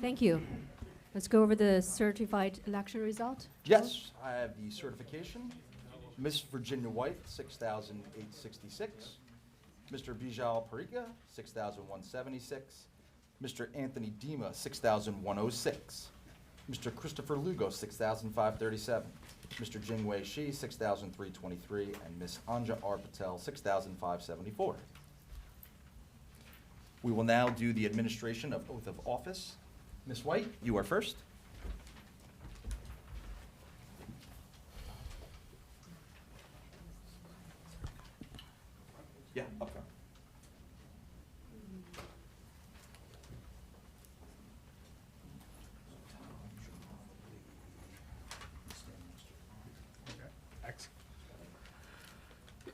Thank you. Let's go over the certified election result. Yes, I have the certification. Miss Virginia White, 6,866. Mr. Bijal Parika, 6,176. Mr. Anthony Dema, 6,106. Mr. oh Christopher Lugo, 6,537. Mr. Jingwei Shi, 6,323. And Miss Anja R. Patel, 6,574. We will now do the administration of oath of office. Miss White, you are first. Yeah, up front.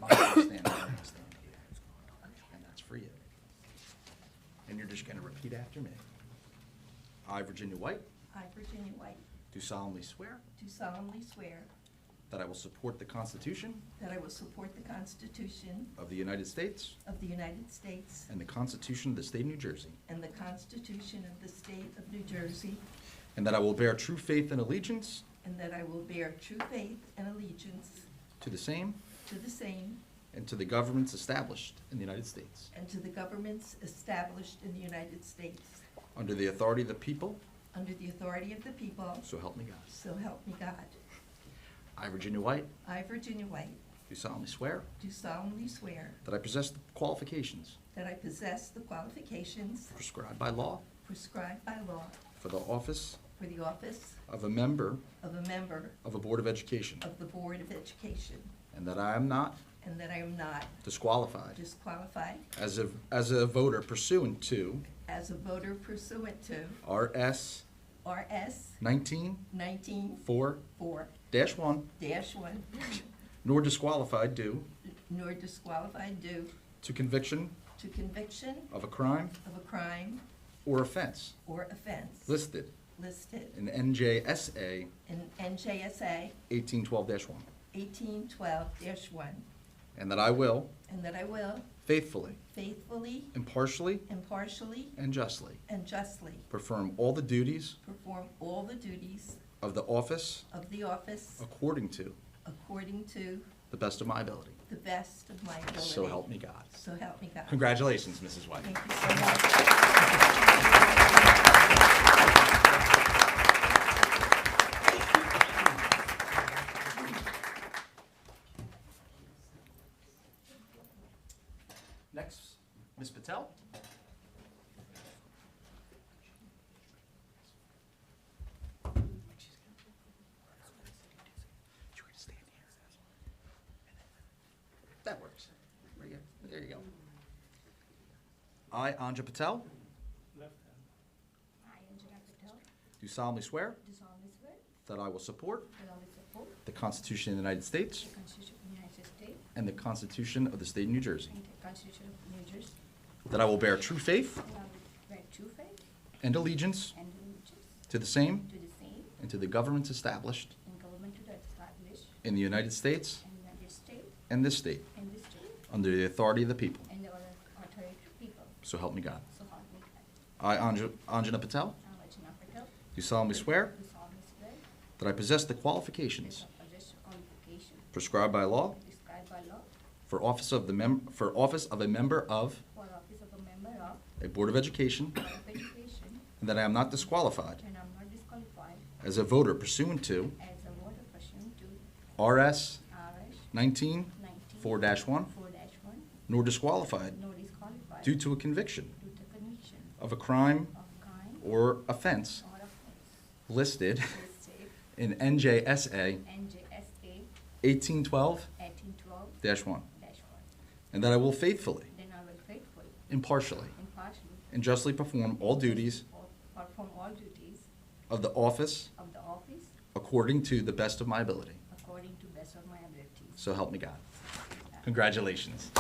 Mine's gonna stand here, mine's stand here. And that's for you. And you're just gonna repeat after me. I, Virginia White, I, Virginia White, do solemnly swear do solemnly swear that I will support the Constitution that I will support the Constitution of the United States of the United States and the Constitution of the State of New Jersey, and the Constitution of the State of New Jersey, and that I will bear true faith and allegiance and that I will bear true faith and allegiance to the same to the same and to the governments established in the United States, and to the governments established in the United States under the authority of the people, under the authority of the people, so help me God. so help me God. I, Virginia White, I, Virginia White, do solemnly swear do solemnly swear that I possess the qualifications that I possess the qualifications prescribed by law prescribed by law for the office for the office of a member of a member of a Board of Education, of the Board of Education, and that I am not and that I am not disqualified disqualified as a, as a voter pursuant to as a voter pursuant to RS RS 19-4-1, 194-1, nor disqualified due nor disqualified due to conviction to conviction of a crime of a crime or offense or offense listed listed in NJSA in NJSA 1812-1, 1812-1, and that I will and that I will faithfully, faithfully, impartially, impartially, and justly and justly perform all the duties perform all the duties of the office of the office according to according to the best of my ability. the best of my ability. So help me God. So help me God. Congratulations, Mrs. White. Thank you so much. Next, Ms. Patel. That works. Right here. There you go. I, Anja Patel, I, Anjana Patel, do do solemnly swear solemnly swear that I will support that I will support the the Constitution of the United States Constitution of the United States and the Constitution of the State of New Jersey, and the Constitution of New Jersey, that I will bear true faith that I will bear true faith and allegiance and allegiance to the same to the same and to the governments established and government to the established in the United States in the United States and this state, and this state under the authority of the people. and the other authority of people. So help me God. So help me God. I, Anj- Anjana Patel, I, Anjana Patel, do solemnly swear do solemnly swear that I possess the that qualifications I possess qualification prescribed by law prescribed by law for office of the mem- for office of a member of for office of a member of a board of education, Board of Education, and that I am not disqualified and I'm not disqualified as a voter pursuant to as a voter pursuant to RS RS 19 nineteen. 4-1, Four dash one, nor disqualified no disqualified. due to a conviction due to conviction of a crime of crime or offense or offense listed listed in NJSA NJSA 1812 eighteen twelve 1, dash one. and that I will faithfully, Then I will faithfully, impartially, impartially. and justly perform all duties or Perform all duties of the office of the office according to the best of my ability. according to best of my abilities. So help me God. Congratulations.